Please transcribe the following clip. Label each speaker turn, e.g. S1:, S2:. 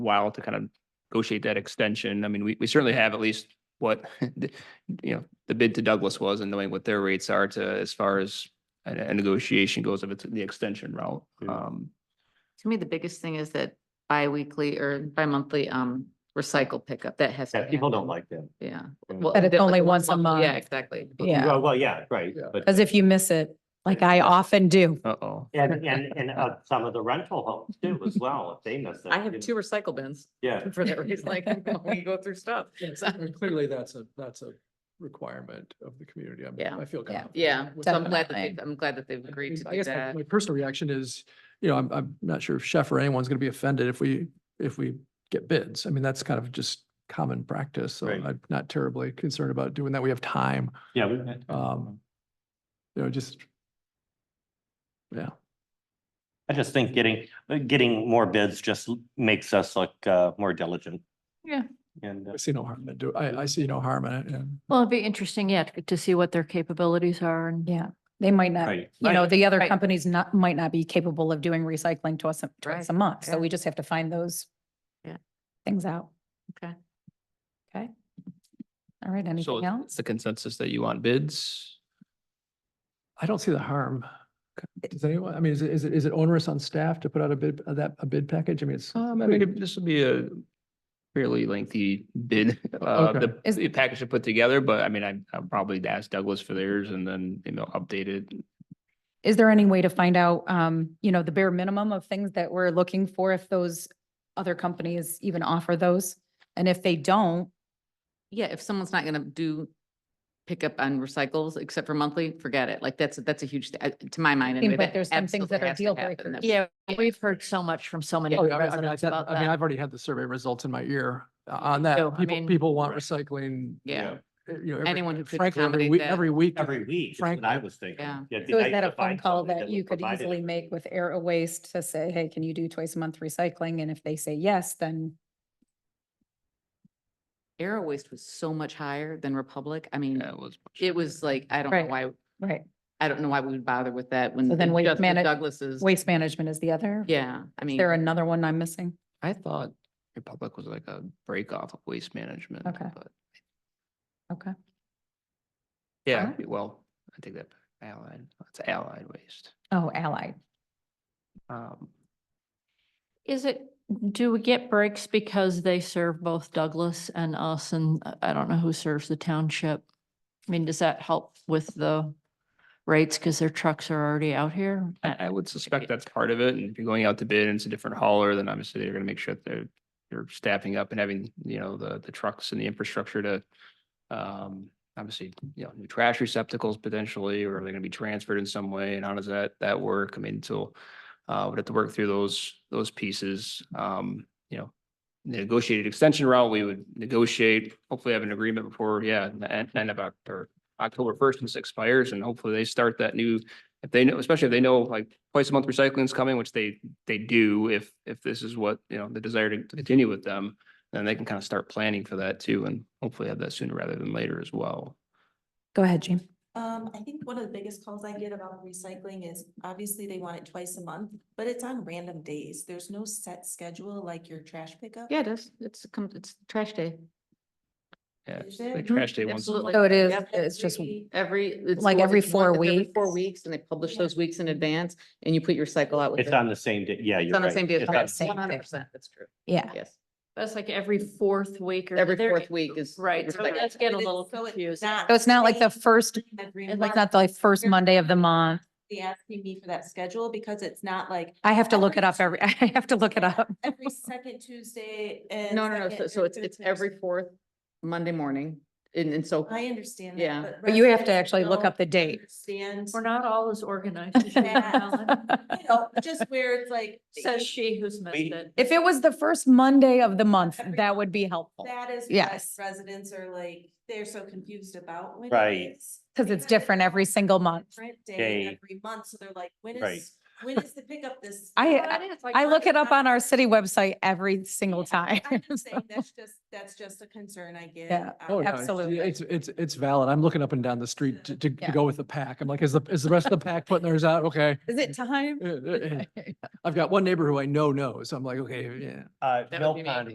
S1: while to kind of negotiate that extension. I mean, we, we certainly have at least what, the- you know, the bid to Douglas was and knowing what their rates are to, as far as a, a negotiation goes, if it's the extension route.
S2: Yeah.
S1: Um,
S3: To me, the biggest thing is that bi-weekly or bi-monthly um recycle pickup, that has. to
S2: Yeah, people don't
S3: happen.
S2: like that.
S3: Yeah.
S2: Mm.
S3: Well,
S4: But it's
S3: that-
S4: only
S3: like,
S4: once a month.
S3: Yeah, exactly.
S4: Yeah.
S2: Well, well, yeah, right, but,
S4: Because if you miss it, like I often do.
S1: uh-oh.
S2: and, and, and uh, some of the rental homes too as well, if they miss it.
S3: I have
S2: you-
S3: two recycle bins
S2: Yeah,
S3: for that reason, like we go through stuff.
S5: Yes,
S3: So-
S5: I mean, clearly that's a, that's a requirement of the community. I'm-
S3: Yeah.
S5: I feel
S4: Yeah.
S5: confident.
S3: Yeah,
S5: with
S3: so I'm
S5: that.
S3: glad that
S4: Definitely.
S3: they've, I'm glad that they've
S5: I
S3: agreed
S5: mean,
S3: to
S5: I
S3: do
S5: guess my-
S3: that.
S5: My personal reaction is, you know, I'm, I'm not sure if Chef or anyone's going to be offended if we, if we get bids. I mean, that's kind of just common practice. So
S2: Right.
S5: I'm not terribly concerned about doing that. We have time,
S2: yeah. we-
S5: um, you know, just, yeah.
S2: I just think getting, uh, getting more bids just l- makes us look uh, more diligent.
S3: Yeah.
S2: And, uh,
S5: I see no harm in do, I, I see no harm in it. and-
S6: Well, it'd be interesting, yeah, to to see what their capabilities are and.
S4: Yeah, they might not,
S2: right,
S4: you know, the other
S6: Right.
S4: companies not, might not be capable of doing recycling twice, a- twice a month. So
S3: yeah.
S4: we just have to find those
S3: Yeah.
S4: things out.
S3: Okay.
S4: Okay. All right,
S1: So
S4: anything
S1: it's
S4: else?
S1: the consensus that you want bids?
S5: I don't see the harm. Does anyone, I mean, is it, is it, is it onerous on staff to put out a bid, uh, that, a bid package? I mean, it's.
S1: Um, I mean, this would be a fairly lengthy bid, uh,
S5: Okay.
S1: the,
S4: Is-
S1: the package to put together, but I mean, I, I'll probably ask Douglas for theirs and then, you know, update it.
S4: Is there any way to find out, um, you know, the bare minimum of things that we're looking for if those other companies even offer those? And if they don't,
S3: Yeah, if someone's not gonna do pickup on recycles except for monthly, forget it. Like that's, that's a huge, th- uh, to my mind. anyway,
S4: like
S3: that
S4: there's some things that
S3: absolutely
S4: are
S3: has to happen.
S4: deal breakers.
S3: That's-
S6: Yeah, we've heard so much from so many
S5: Oh, yeah, I mean, I mean, I
S6: residents
S5: said-
S6: about
S5: I mean,
S6: that.
S5: I've already had the survey results in my ear uh,
S6: Yeah,
S5: on
S6: me
S5: that.
S6: too. I
S5: People,
S6: mean-
S5: people want recycling.
S3: Yeah.
S5: uh, You know, every-
S3: Anyone who could
S5: frankly, every
S3: accommodate
S5: week,
S3: that.
S5: every week.
S2: every week is
S5: Frank-
S2: what I was thinking.
S3: Yeah.
S2: It'd be
S4: So
S2: nice
S4: is that
S2: to
S4: a phone
S2: find
S4: call
S2: somebody
S4: that
S2: would
S4: you could
S2: provide it.
S4: easily make with Air Waste to say, hey, can you do twice a month recycling? And if they say yes, then
S3: Aero waste was so much higher than Republic. I mean,
S1: Yeah, it was.
S3: it was like, I don't know
S4: Right.
S3: why,
S4: Right.
S3: I don't know why we would bother with that when.
S4: So then
S3: it's
S4: Waste
S3: just the
S4: Manage-
S3: Douglas's,
S4: Waste management is the other?
S3: yeah, I
S4: Is
S3: mean.
S4: there another one I'm missing?
S1: I thought Republic was like a break off of waste management.
S4: Okay.
S1: but-
S4: Okay.
S1: Yeah,
S4: Alright.
S1: well, I take that back. allied, it's allied waste.
S4: Oh, Allied.
S1: Um,
S6: Is it, do we get breaks because they serve both Douglas and us and uh, I- I don't know who serves the township? I mean, does that help with the rates because their trucks are already out here? I-
S1: Um, I, I would suspect that's part of it. And if you're going out to bid and it's a different hauler, then obviously they're gonna make sure that they're, they're staffing up and having, you know, the, the trucks and the infrastructure to, um, obviously, you know, new trash receptacles potentially, or are they gonna be transferred in some way? And how does that, that work? I mean, so, uh, we'd have to work through those, those pieces. Um, you know, negotiated extension route, we would negotiate, hopefully have an agreement before, yeah, the end, end of October, October first and expires and hopefully they start that new if they know, especially if they know like twice a month recycling is coming, which they, they do, if, if this is what, you know, the desire to to continue with them, then they can kind of start planning for that too, and hopefully have that sooner rather than later as well.
S4: Go ahead, Jean.
S7: Um, I think one of the biggest calls I get about recycling is obviously they want it twice a month, but it's on random days. There's no set schedule like your trash pickup.
S3: Yeah, it is. It's, come- it's trash day.
S1: Yeah,
S7: Is
S1: like
S7: it?
S1: trash day once. a
S3: Absolutely.
S1: month.
S4: So it is,
S3: Yep.
S4: it's just,
S7: Every-
S3: Every. it's
S4: Like
S3: more-
S4: every
S3: it's one-
S4: four
S3: it's every Four
S4: weeks?
S3: weeks and they publish
S7: Yeah.
S3: those weeks in advance and you put your cycle out. with
S2: It's
S3: it.
S2: on the same day, yeah,
S3: It's
S2: you're
S3: on
S2: right.
S3: the same day. as
S2: It's on-
S3: Douglas.
S4: same day.
S3: 100%, that's true.
S4: yeah.
S3: Yes.
S6: That's like every fourth week or.
S3: Every
S6: there-
S3: fourth week is.
S6: Right, so
S3: recycling.
S6: that's getting a
S7: But it's-
S6: little
S7: so it's
S6: confused.
S4: So it's not like the
S7: same
S4: first,
S7: every
S4: it's
S7: month.
S4: like not the first Monday of the month.
S7: They asking me for that schedule because it's not like
S4: I have to look it up every, I have to look it up.
S7: every second Tuesday and.
S3: No, no, no.
S7: second
S3: So,
S7: and
S3: so it's,
S7: third
S3: it's every
S7: Thursday.
S3: fourth Monday morning. And, and so
S7: I understand
S3: Yeah.
S7: that. but
S4: But you have to
S7: residents
S4: actually look
S7: don't
S4: up the date.
S7: Understand,
S6: We're not all as organized. as you, Helen,
S7: you know, just where it's like.
S6: Says she who's missed
S2: We-
S6: it.
S4: If it was the first Monday of the month,
S7: Every-
S4: that would be helpful.
S7: That is what
S4: Yes.
S7: residents are like, they're so confused about when it
S2: Right.
S7: is.
S4: Because it's different every single month.
S7: Different
S2: Day.
S7: day every month, so they're like, when
S2: Right.
S7: is When is the pickup this? Oh,
S4: I-
S7: Well,
S6: it is, like,
S4: I
S6: we're
S4: look
S6: just
S4: it up
S6: not-
S4: on our city website every single time.
S7: I'm just saying,
S4: so-
S7: that's just, that's just a concern I get.
S4: Yeah.
S7: um,
S5: Oh, yeah, it's-
S4: Absolutely.
S5: It's, it's, it's valid. I'm looking up and down the street to, to to
S4: Yeah.
S5: go with the pack. I'm like, is the, is the rest of the pack putting theirs out? Okay.
S4: Is it time?
S5: Uh, uh, uh. I've got one neighbor who I know knows. I'm like, okay, yeah.
S2: Uh,
S3: would
S2: Mill
S3: be me.
S2: Pond